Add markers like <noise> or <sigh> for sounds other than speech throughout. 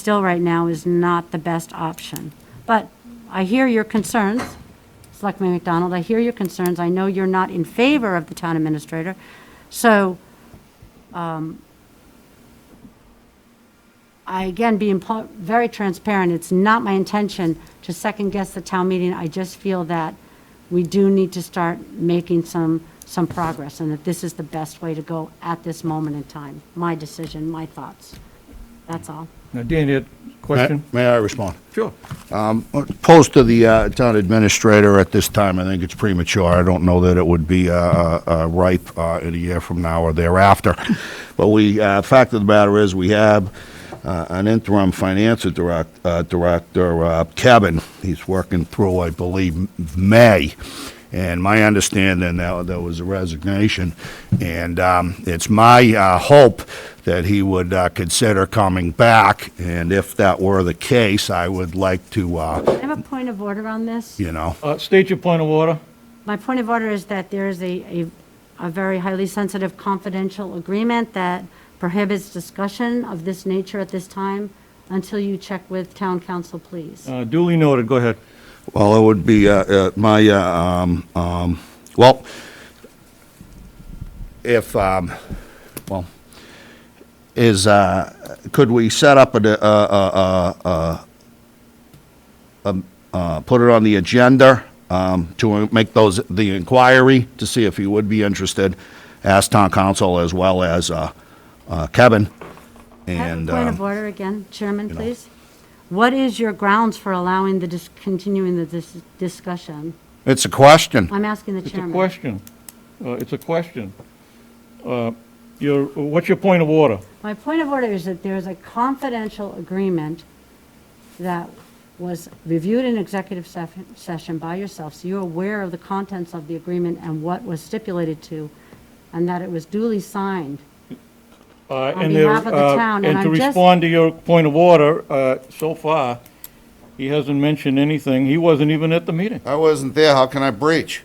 still right now is not the best option. But I hear your concerns, Selectman McDonald, I hear your concerns. I know you're not in favor of the town administrator, so um, I, again, being pl- very transparent, it's not my intention to second-guess the town meeting. I just feel that we do need to start making some, some progress, and that this is the best way to go at this moment in time. My decision, my thoughts. That's all. Now, Dan, you had a question? May may I respond? Sure. Post to the uh, town administrator at this time, I think it's premature. I don't know that it would be uh, uh, ripe uh, in a year from now or <laughs> thereafter. But we, uh, fact of the matter is, we have uh, an interim finance direct- uh, director, uh, Kevin. He's working through, I believe, M- May. And my understanding, that there was a resignation. And um, it's my uh, hope that he would uh, consider coming back. And if that were the case, I would like to, uh, I have a point of order on this. you know, Uh, State your point of order. My point of order is that there is a, a, a very highly sensitive confidential agreement that prohibits discussion of this nature at this time until you check with town council, please. Uh, Duly noted, go ahead. well, it would be uh, uh, my, uh, um, um, well, if, um, well, is, uh, could we set up a, uh, a- a- a- a- uh, um, uh, put it on the agenda um, to make those, the inquiry, to see if he would be interested, ask town council as well as uh, uh, Kevin, I have a and. Point um, of order again, Chairman, know. please. What is your grounds for allowing the, dis- continuing the dis- discussion? It's a question. I'm asking the It's a chairman. question. Uh, It's a question. Uh, Your, what's your point of order? My point of order is that there is a confidential agreement that was reviewed in executive sef- session by yourself, so you're aware of the contents of the agreement and what was stipulated to, and that it was duly signed. Uh, On and there- behalf of the uh, town, and And to I'm just- respond to your point of order, uh, so far, he hasn't mentioned anything. He wasn't even at the meeting. I wasn't there, how can I breach?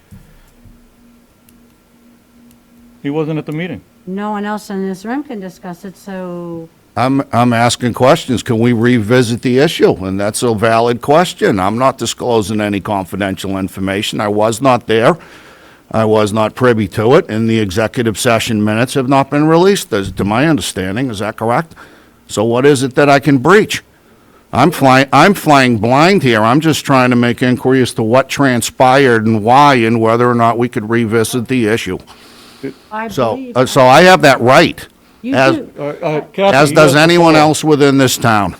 He wasn't at the meeting. No one else in this room can discuss it, so I'm, I'm asking questions. Can we revisit the issue? And that's a valid question. I'm not disclosing any confidential information. I was not there. I was not privy to it, and the executive session minutes have not been released, as to my understanding. Is that correct? So what is it that I can breach? I'm flying, I'm flying blind here. I'm just trying to make inquiry as to what transpired and why, and whether or not we could revisit the issue. I So, believe. uh, so I have that right, You as- do, Uh, uh, Kathy, as he has does the anyone floor. else within this town.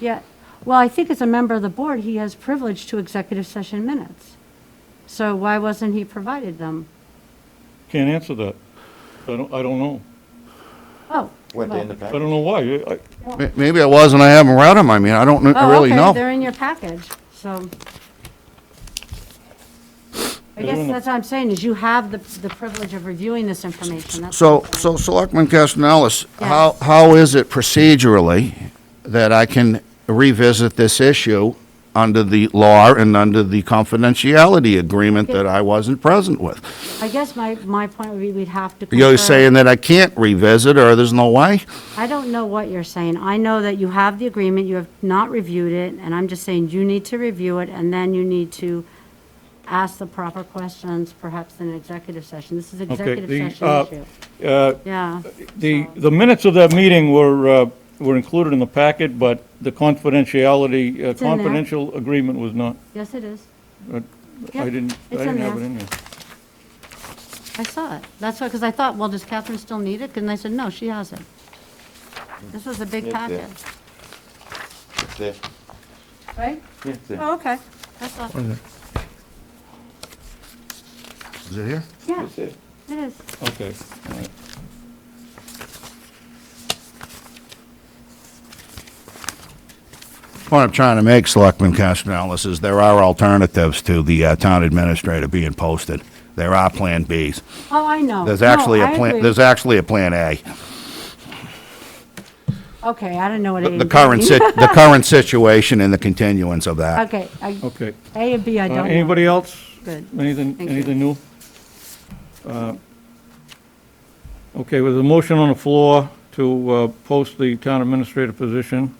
yeah. Well, I think as a member of the board, he has privilege to executive session minutes. So why wasn't he provided them? Can't answer that. I don't, I don't know. Oh. Went well- in the I back. don't know why. I- I- Ma- Maybe I was and I haven't read them. I mean, I don't kn- Oh, really okay, know. They're in your package, so. I They're guess in the- that's what I'm saying, is you have the, the privilege of reviewing this information. that's So, what I'm saying. so Selectman Castellalis, how, how is it procedurally that I can revisit this issue under the law and under the confidentiality agreement that I wasn't present with? I guess my, my point would be we'd have to. You're confer- saying that I can't revisit or there's no way? I don't know what you're saying. I know that you have the agreement, you have not reviewed it, and I'm just saying you need to review it, and then you need to ask the proper questions, perhaps in an executive session. This is executive the, session uh, issue. uh, Yeah, The, the minutes of that meeting were, uh, were included in the packet, but the confidentiality, in uh, there. confidential agreement was not. yes, it is. I Yep, didn't, I it's didn't in have it there. in there. I saw it. That's why, because I thought, well, does Catherine still need it? And I said, no, she has it. This was a big Yeah, yeah. packet, It's there. right? It's there. Oh, okay. That's all. Is it here? Yeah, It's there. it is. Okay. all right. What I'm trying to make, Selectman Castellalis, is there are alternatives to the uh, town administrator being posted. There are Plan Bs. Oh, I know. There's No, actually a I plan, agree. there's actually a Plan A. Okay, I don't know what A The and B. <laughs> the current, sit- the current situation and the continuance of that. Okay, I- Okay. A and B, I Uh, don't know. Anybody else? Good. Anything, Thank you. anything new? Uh, Okay, with a motion on the floor to uh, post the town administrator position,